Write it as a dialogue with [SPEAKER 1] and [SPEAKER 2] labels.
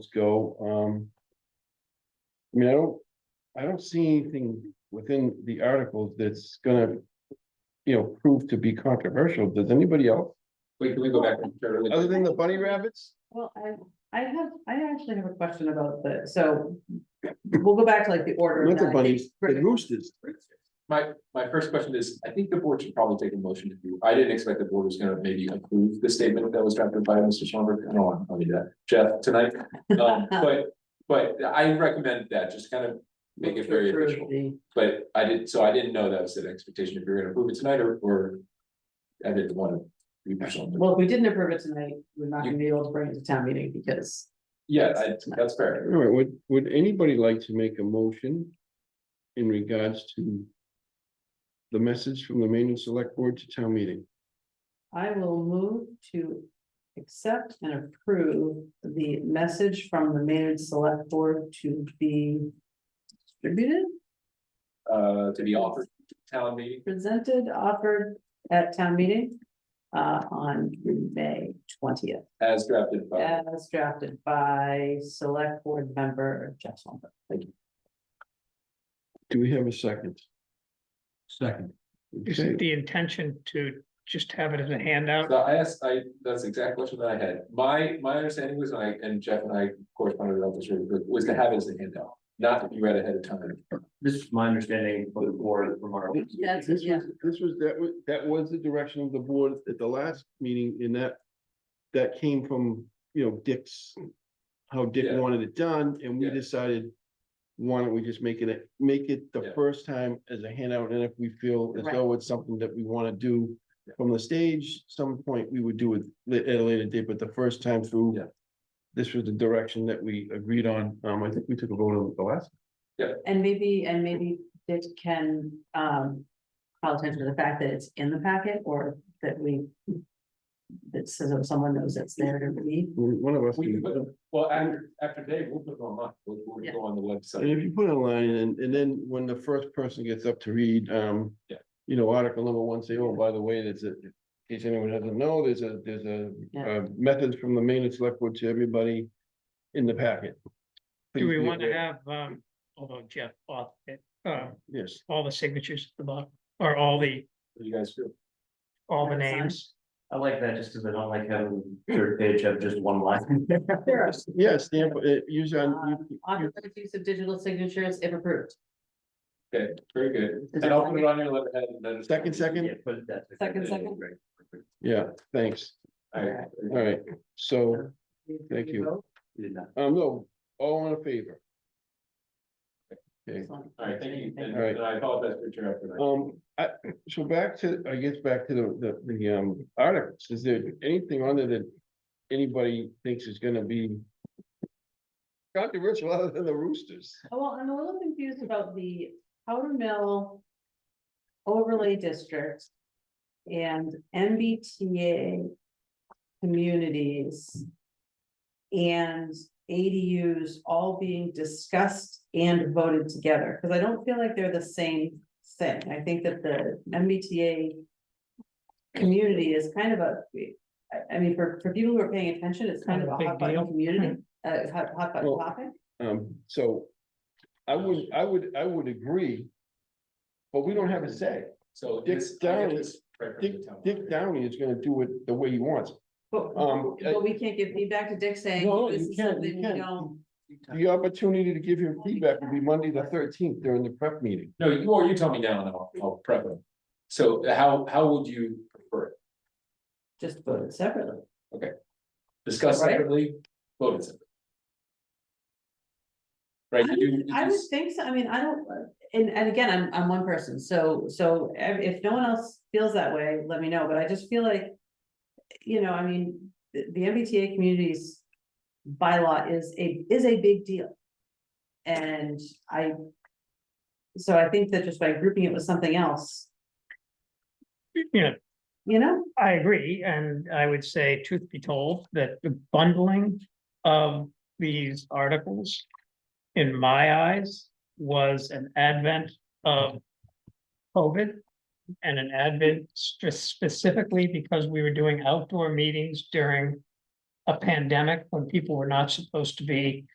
[SPEAKER 1] go, um. I mean, I don't, I don't see anything within the articles that's gonna. You know, prove to be controversial. Does anybody else,
[SPEAKER 2] Wait, can we go back? to-
[SPEAKER 1] other than the bunny rabbits?
[SPEAKER 3] Well, I, I have, I actually have a question about the, so we'll go back to like the order.
[SPEAKER 1] Not the
[SPEAKER 3] now, I think.
[SPEAKER 1] bunnies, the roosters.
[SPEAKER 2] My, my first question is, I think the board should probably take a motion to do, I didn't expect the board was gonna maybe approve the statement that was drafted by Mr. Schlumberg, I don't want to tell you that, Jeff, tonight. Um, but, but I recommend that, just kind of make it very
[SPEAKER 3] Through
[SPEAKER 2] official,
[SPEAKER 3] the-
[SPEAKER 2] but I did, so I didn't know that was an expectation if you're gonna approve it tonight or, or. I didn't want to. be personal.
[SPEAKER 3] Well, if we didn't approve it tonight, we're not
[SPEAKER 2] You-
[SPEAKER 3] gonna be able to bring it to town meeting because.
[SPEAKER 2] Yeah, I, that's fair.
[SPEAKER 1] All right, would, would anybody like to make a motion? In regards to. The message from the Maine Select Board to town meeting.
[SPEAKER 3] I will move to accept and approve the message from the Maynard Select Board to be distributed,
[SPEAKER 2] Uh, to be offered to town meeting,
[SPEAKER 3] presented, offered at town meeting uh, on May twentieth,
[SPEAKER 2] as drafted by,
[SPEAKER 3] as drafted by Select Board member Jeff Swamper. Thank you.
[SPEAKER 1] Do we have a second?
[SPEAKER 4] Second.
[SPEAKER 5] Is
[SPEAKER 1] Okay.
[SPEAKER 5] it the intention to just have it as a handout?
[SPEAKER 2] so I asked, I, that's the exact question that I had, my, my understanding was, and I, and Jeff and I corresponded about this, really quick, was to have it as a handout. Not that you read ahead of time,
[SPEAKER 4] This is my understanding of the board remark.
[SPEAKER 3] That's-
[SPEAKER 1] This
[SPEAKER 3] yeah.
[SPEAKER 1] was, this was, that was, that was the direction of the board at the last meeting in that. That came from, you know, Dick's. How Dick
[SPEAKER 2] Yeah.
[SPEAKER 1] wanted it done and we
[SPEAKER 2] Yeah.
[SPEAKER 1] decided. Why don't we just make it, make it the
[SPEAKER 2] Yeah.
[SPEAKER 1] first time as a handout and if we feel as
[SPEAKER 3] Right.
[SPEAKER 1] though it's something that we wanna do. From the stage, some point we would do it la- at a later date, but the first time through.
[SPEAKER 2] Yeah.
[SPEAKER 1] This was the direction that we agreed on. Um, I think we took a vote on it the last.
[SPEAKER 3] And maybe, and maybe it can, um, call attention to the fact that it's in the packet or that we. That says if someone knows it's there to read.
[SPEAKER 1] One of us.
[SPEAKER 2] We can
[SPEAKER 1] can-
[SPEAKER 2] put it- well, after, after today, we'll put it online, we'll, we'll go on the
[SPEAKER 1] And
[SPEAKER 2] website.
[SPEAKER 1] if you put it online and, and then when the first person gets up to read, um.
[SPEAKER 2] Yeah.
[SPEAKER 1] You know, article number one, say, oh, by the way, there's a, in case anyone doesn't know, there's a, there's a,
[SPEAKER 3] Yeah.
[SPEAKER 1] uh, methods from the main and select board to everybody. In the packet.
[SPEAKER 5] Do
[SPEAKER 1] Please
[SPEAKER 5] we
[SPEAKER 1] be
[SPEAKER 5] want to
[SPEAKER 1] aware.
[SPEAKER 5] have, um, although Jeff bought it, uh,
[SPEAKER 1] Yes,
[SPEAKER 5] all the signatures at the bottom, or all the,
[SPEAKER 2] What do you guys feel?
[SPEAKER 5] all the
[SPEAKER 3] That's fine.
[SPEAKER 5] names?
[SPEAKER 4] I like that just because I don't like having third page of just one line.
[SPEAKER 1] yeah, stamp, uh, use on.
[SPEAKER 3] Um, Authorized use of digital signatures if approved.
[SPEAKER 2] Okay, very good,
[SPEAKER 3] Is
[SPEAKER 2] and
[SPEAKER 3] it
[SPEAKER 2] I'll put it on your letterhead and then.
[SPEAKER 1] Second, second,
[SPEAKER 4] Yeah, put that.
[SPEAKER 3] Second, second.
[SPEAKER 4] Right.
[SPEAKER 1] yeah, thanks,
[SPEAKER 2] All right.
[SPEAKER 1] all right, so, Thank you.
[SPEAKER 3] vote?
[SPEAKER 4] You did not.
[SPEAKER 1] um, no, all in favor? Okay.
[SPEAKER 2] All right, thank you, and
[SPEAKER 1] All right.
[SPEAKER 2] and I apologize for your effort.
[SPEAKER 1] Um, I, so back to, I guess back to the, the, the, um, articles, is there anything on there that anybody thinks is gonna be controversial other than the roosters?
[SPEAKER 3] Oh, Well, I'm a little confused about the Powder Mill overlay district and MBTA communities and ADUs all being discussed and voted together, because I don't feel like they're the same thing. I think that the MBTA community is kind of a, I, I mean, for, for people who are paying attention, it's kind of a
[SPEAKER 5] Big
[SPEAKER 3] hot button
[SPEAKER 5] deal.
[SPEAKER 3] community, uh, hot, hot button
[SPEAKER 1] Well,
[SPEAKER 3] topic.
[SPEAKER 1] Um, so I would, I would, I would agree. But we don't have a say.
[SPEAKER 2] So.
[SPEAKER 1] Dick
[SPEAKER 2] this- I get
[SPEAKER 1] Downey-
[SPEAKER 2] this right from
[SPEAKER 1] Dick,
[SPEAKER 2] the town.
[SPEAKER 1] Dick Downey is gonna do it the way he wants.
[SPEAKER 3] But,
[SPEAKER 1] Um, I-
[SPEAKER 3] but we can't give feedback to Dick saying,
[SPEAKER 1] No,
[SPEAKER 3] this
[SPEAKER 1] you
[SPEAKER 3] is
[SPEAKER 1] can't, you
[SPEAKER 3] something we
[SPEAKER 1] can't.
[SPEAKER 3] don't.
[SPEAKER 1] The opportunity to give him feedback will be Monday the thirteenth during the prep meeting.
[SPEAKER 2] No, you, or you tell me now and I'll, I'll prep it. So how, how would you prefer it?
[SPEAKER 3] Just vote it separately.
[SPEAKER 2] Discuss
[SPEAKER 3] Right.
[SPEAKER 2] separately, vote it separately? Right,
[SPEAKER 3] I
[SPEAKER 2] you,
[SPEAKER 3] I
[SPEAKER 2] you
[SPEAKER 3] would
[SPEAKER 2] just,
[SPEAKER 3] think so, I mean, I don't, and, and again, I'm, I'm one person, so, so if, if no one else feels that way, let me know, but I just feel like. You know, I mean, the, the MBTA communities bylaw is a, is a big deal. And I. So I think that just by grouping it with something else,
[SPEAKER 5] You know,
[SPEAKER 3] you know,
[SPEAKER 5] I agree, and I would say, truth be told, that the bundling of these articles. In my eyes, was an advent of COVID. And an advent stra- specifically because we were doing outdoor meetings during a pandemic when people were not supposed to be